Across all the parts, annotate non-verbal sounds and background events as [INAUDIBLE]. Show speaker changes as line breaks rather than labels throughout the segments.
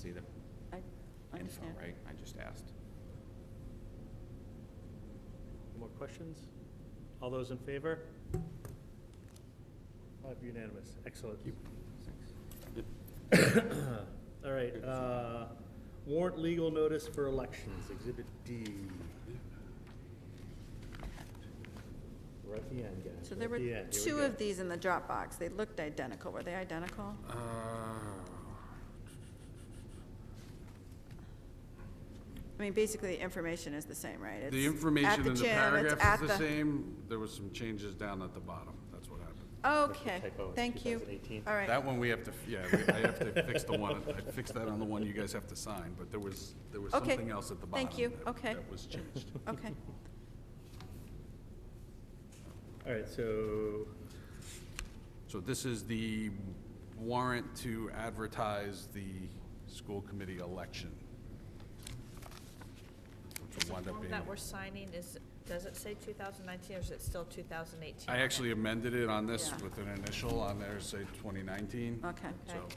See the
I
info,
understand.
right? I just asked.
More questions? All those in favor? Five unanimous, excellent. All right, uh, warrant legal notice for elections, Exhibit D. We're at the end, guys.
So
we're
there
at
were
the end. Here we
two
go.
of these in the Dropbox. They looked identical. Were they identical?
Uh,
I mean, basically, the information is the same, right? It's
The
at
information in the
gym, it's
paragraph
at
is the same, there was some changes down at the bottom, that's what happened.
Okay,
Typo in
thank you.
2018.
All right.
That one we have to, yeah, we- I have to fix the one, I fixed that on the one you guys have to sign, but there was, there was
Okay,
something else at the bottom.
thank you,
that-
okay.
That was changed. [LAUGHS]
Okay.
All right, so,
So this is the warrant to advertise the school committee election. Which
Is
will
the
wind up
form
being.
that we're signing is, does it say 2019 or is it still 2018?
I actually amended it on this
Yeah.
with an initial on there, say 2019.
Okay.
So,
Okay.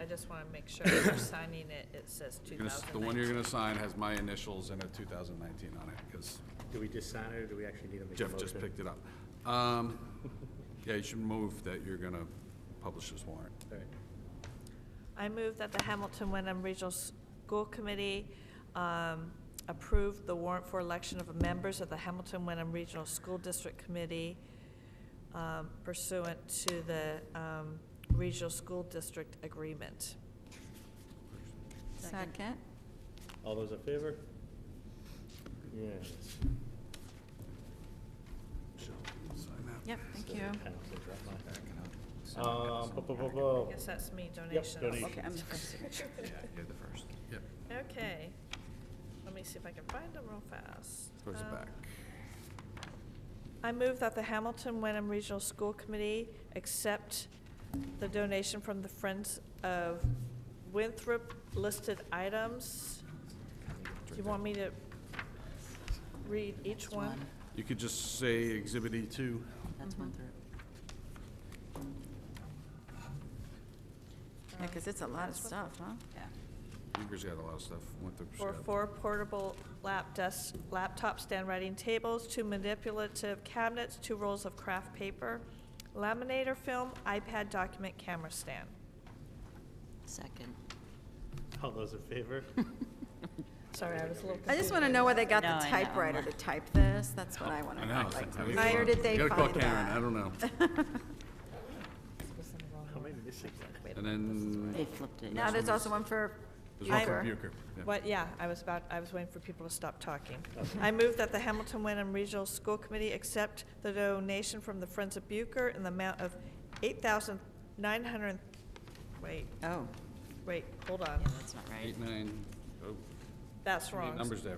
I just want to make sure when
[COUGHS]
we're signing it, it says
you're gonna s- the one you're
2019.
gonna sign has my initials and a 2019 on it, because
do we just sign it, or do we actually need to make a motion?
Jeff just picked it up. Um, Yeah, you should move that you're gonna publish this warrant.
All right.
I move that the Hamilton Wyndham Regional School Committee um, approve the warrant for election of members of the Hamilton Wyndham Regional School District Committee um, pursuant to the um, Regional School District Agreement.
Second.
All those in favor? Yes.
Jill, sign that.
Yep, thank you.
I don't think that might-
Back it up.
Um, bu- bu- bu- bu-
I guess that's me, donations.
Yep, donations.
Okay, I'm the
[LAUGHS]
first signature.
Yeah, you're the first.
Yep,
Okay, let me see if I can find them real fast.
towards the
Um,
back.
I move that the Hamilton Wenham Regional School Committee accept the donation from the Friends of Winthrop listed items. Do you want me to read each one?
You could just say Exhibit E E2.
That's one through.
Yeah, because it's a lot of stuff, huh?
Yeah.
Uber's got a lot of stuff. Winthrop's
For
got-
four portable lap desks, laptop stand writing tables, two manipulative cabinets, two rolls of craft paper, laminator film, iPad document camera stand.
Second.
All those in
[LAUGHS]
favor?
Sorry, I was a little confused.
I just want to know where they got
No,
the
I know.
typewriter to type this. That's what I want
I
to
know.
know. Like,
I was
Where
gonna-
did they
You gotta call
find
Karen, I
that? [LAUGHS]
don't know.
Was in the wrong
How
one.
many missing?
Wait a
And
minute.
then
[LAUGHS] They flipped it.
Now, there's also one for
there's one
Bucher.
for Bucher. yeah.
What, yeah, I was about, I was waiting for people to stop talking. I move that the Hamilton Wyndham Regional School Committee accept the donation from the Friends of Bucher in the amount of eight thousand nine hundred, wait,
Oh,
wait, hold
yeah,
on,
that's not right.
Eight, nine, oh,
that's
too many
wrong.
numbers there.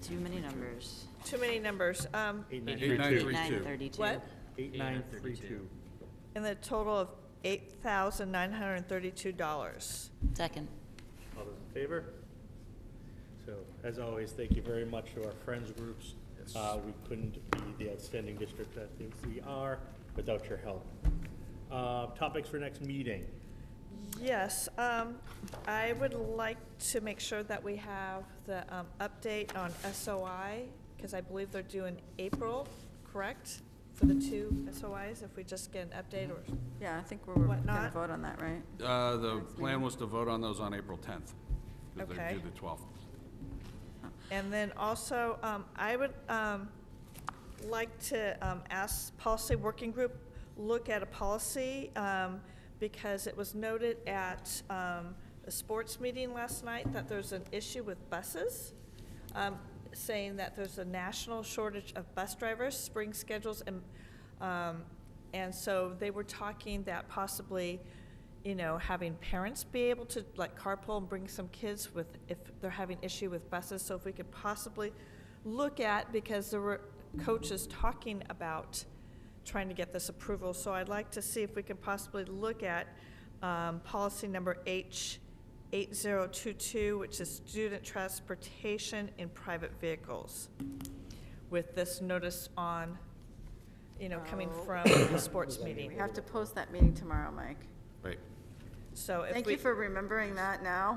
Too many numbers.
Too many numbers. Um,
Eight, nine,
Eight, nine,
three, two.
three,
Nine
two.
thirty-two.
what?
Eight, nine, three, two.
In the total of eight thousand nine hundred and thirty-two dollars.
Second.
All those in favor? So, as always, thank you very much to our friends groups. Uh, we couldn't be the outstanding district that I think we are without your help. Uh, topics for next meeting.
Yes, um, I would like to make sure that we have the, um, update on SOI, because I believe they're due in April, correct? For the two SOIs, if we just get an update or,
Yeah, I think we're going to
Whatnot.
vote on that, right?
Uh, the
Next
plan
meeting.
was to vote on those on April 10th. 'cause
Okay.
They're due the 12th.
and then also, um, I would, um, like to, um, ask policy working group, look at a policy, um, because it was noted at, um, a sports meeting last night that there's an issue with buses. um, saying that there's a national shortage of bus drivers, spring schedules, and, um, and so they were talking that possibly, you know, having parents be able to like carpool and bring some kids with, if they're having issue with buses, so if we could possibly look at, because there were coaches talking about trying to get this approval, so I'd like to see if we can possibly look at, um, policy number H 8022, which is student transportation in private vehicles, with this notice on, you know, coming
Oh. [COUGHS]
from the sports
We
meeting.
have to post that meeting tomorrow, Mike.
Right.
So if we.
Thank you for remembering that now.